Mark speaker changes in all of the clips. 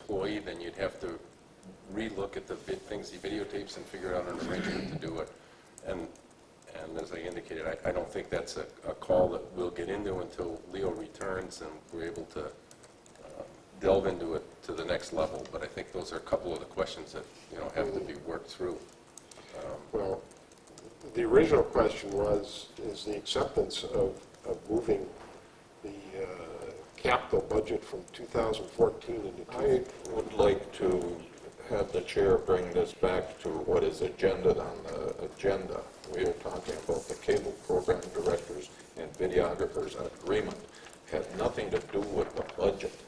Speaker 1: employee, then you'd have to relook at the vi- things he videotapes and figure out an arrangement to do it. And, and as I indicated, I, I don't think that's a, a call that we'll get into until Leo returns and we're able to um, delve into it to the next level. But I think those are a couple of the questions that, you know, have to be worked through.
Speaker 2: Well, the original question was, is the acceptance of, of moving the uh, capital budget from 2014 into
Speaker 3: I
Speaker 2: 20...
Speaker 3: would like to have the chair bring this back to what is agendaed on the agenda. We are talking about the cable program directors and videographers agreement. Had nothing to do with the budget.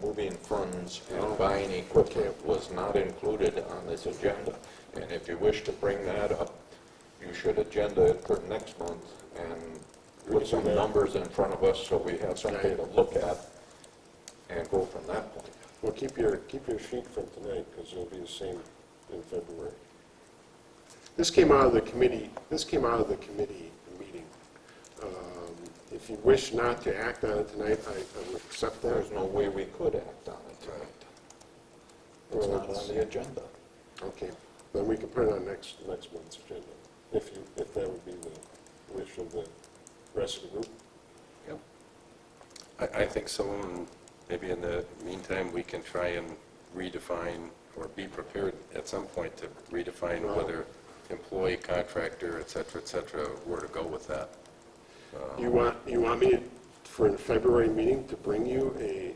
Speaker 3: Moving funds and buying equipment was not included on this agenda. And if you wish to bring that up, you should agenda it for next month and put some numbers in front of us so we have something to look at and go from that point.
Speaker 2: Well, keep your, keep your sheet from tonight, because it'll be the same in February. This came out of the committee, this came out of the committee meeting. Um, If you wish not to act on it tonight, I I would accept that.
Speaker 3: There's no way we could act on it tonight. It's not on the agenda.
Speaker 2: Okay, then we can put it on next, next month's agenda, if you, if that would be the wish of the rest of the group.
Speaker 1: Yep. I, I think someone, maybe in the meantime, we can try and redefine or be prepared at some point to redefine
Speaker 2: Right.
Speaker 1: whether employee, contractor, et cetera, et cetera, where to go with that.
Speaker 2: You want, you want me to, for the February meeting, to bring you a,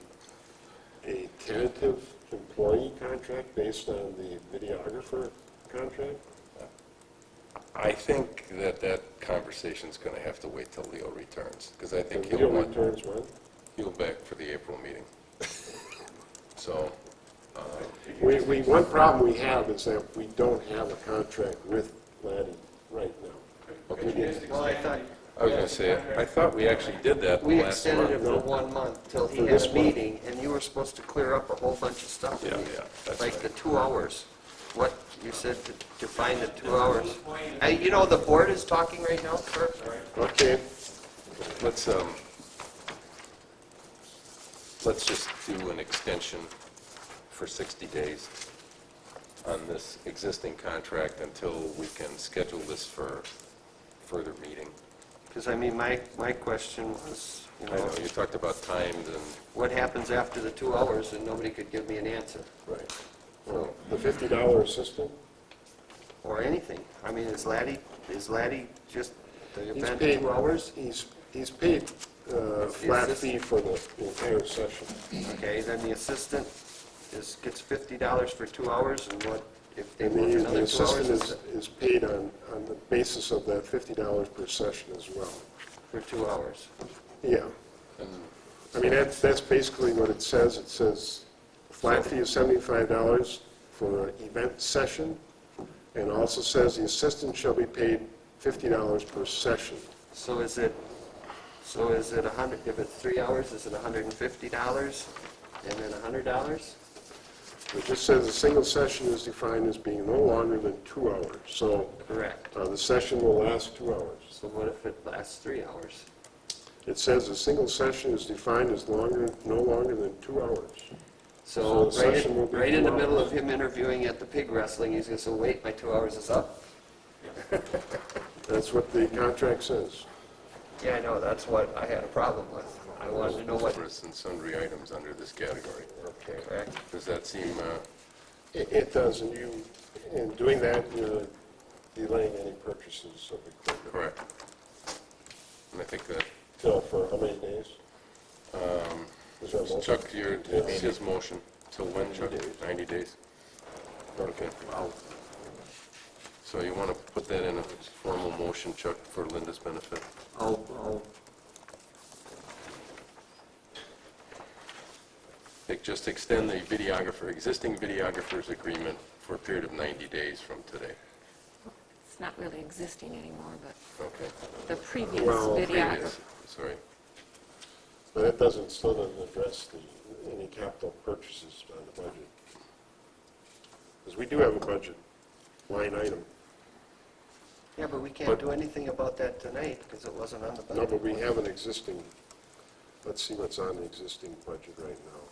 Speaker 2: a tentative employee contract based on the videographer contract?
Speaker 1: I think that that conversation's going to have to wait till Leo returns, because I
Speaker 2: The
Speaker 1: think he'll
Speaker 2: video
Speaker 1: want,
Speaker 2: returns when?
Speaker 1: he'll back for the April meeting. So,
Speaker 2: We, we, one problem we have is that we don't have a contract with Laddie right now.
Speaker 1: okay.
Speaker 4: Well, I thought,
Speaker 1: I was going to say, I thought we actually did that the
Speaker 4: we
Speaker 1: last month.
Speaker 4: extended it for one month till
Speaker 2: For
Speaker 4: he had
Speaker 2: this
Speaker 4: a
Speaker 2: one.
Speaker 4: meeting, and you were supposed to clear up a whole bunch of stuff.
Speaker 1: Yeah, yeah, that's
Speaker 4: Like
Speaker 1: right.
Speaker 4: the two hours, what, you said to define the two hours. Uh, You know, the board is talking right now, Kirk.
Speaker 2: Okay,
Speaker 1: Let's, um, let's just do an extension for 60 days on this existing contract until we can schedule this for further meeting.
Speaker 4: Because I mean, my, my question was, you
Speaker 1: I
Speaker 4: know,
Speaker 1: know, you talked about times and,
Speaker 4: what happens after the two hours, and nobody could give me an answer,
Speaker 2: right. Well, the fifty dollar assistant?
Speaker 4: or anything. I mean, is Laddie, is Laddie just the
Speaker 2: He's
Speaker 4: event
Speaker 2: paid-
Speaker 4: two hours?
Speaker 2: He's, he's paid uh flat
Speaker 4: Is this-
Speaker 2: fee for the entire session.
Speaker 4: Okay, then the assistant is, gets fifty dollars for two hours, and what, if they
Speaker 2: And
Speaker 4: work
Speaker 2: the- the
Speaker 4: another two hours
Speaker 2: assistant
Speaker 4: is
Speaker 2: is,
Speaker 4: it
Speaker 2: is paid on, on the basis of that fifty dollars per session as well.
Speaker 4: for two hours?
Speaker 2: Yeah. I mean, that's, that's basically what it says. It says flat fee is seventy-five dollars for an event session, and also says the assistant shall be paid fifty dollars per session.
Speaker 4: So is it, so is it a hundred, if it's three hours, is it hundred and fifty dollars, and then a hundred dollars?
Speaker 2: It just says a single session is defined as being no longer than two hours, so
Speaker 4: Correct.
Speaker 2: uh, the session will last two hours.
Speaker 4: So what if it lasts three hours?
Speaker 2: It says a single session is defined as longer, no longer than two hours. So the
Speaker 4: So right
Speaker 2: session will
Speaker 4: in,
Speaker 2: be
Speaker 4: right in the
Speaker 2: two
Speaker 4: middle
Speaker 2: hours.
Speaker 4: of him interviewing at the pig wrestling, he's gonna say, wait, my two hours is up?
Speaker 2: That's what the contract says.
Speaker 4: Yeah, I know, that's what I had a problem with. I wanted to know what,
Speaker 1: numbers and sundry items under this category.
Speaker 4: correct?
Speaker 1: Does that seem, uh,
Speaker 2: It, it does, and you, in doing that, you're delaying any purchases of equipment.
Speaker 1: correct? And I think that,
Speaker 2: So for how many days? Is that most?
Speaker 1: Chuck, your, it's his motion. Till when, Chuck? 90 days? Okay. So you want to put that in a formal motion, Chuck, for Linda's benefit?
Speaker 4: I'll, I'll
Speaker 1: Like, Just extend the videographer, existing videographer's agreement for a period of 90 days from today.
Speaker 5: It's not really existing anymore, but
Speaker 1: Okay.
Speaker 5: the previous
Speaker 2: Well,
Speaker 5: videographer.
Speaker 1: Previous, Sorry.
Speaker 2: But that doesn't, still doesn't address the, any capital purchases on the budget. Because we do have a budget line item.
Speaker 4: Yeah, but we can't
Speaker 1: But-
Speaker 4: do anything about that tonight because it wasn't on the
Speaker 2: No,
Speaker 4: budget.
Speaker 2: but we have an existing, let's see what's on the existing budget right now.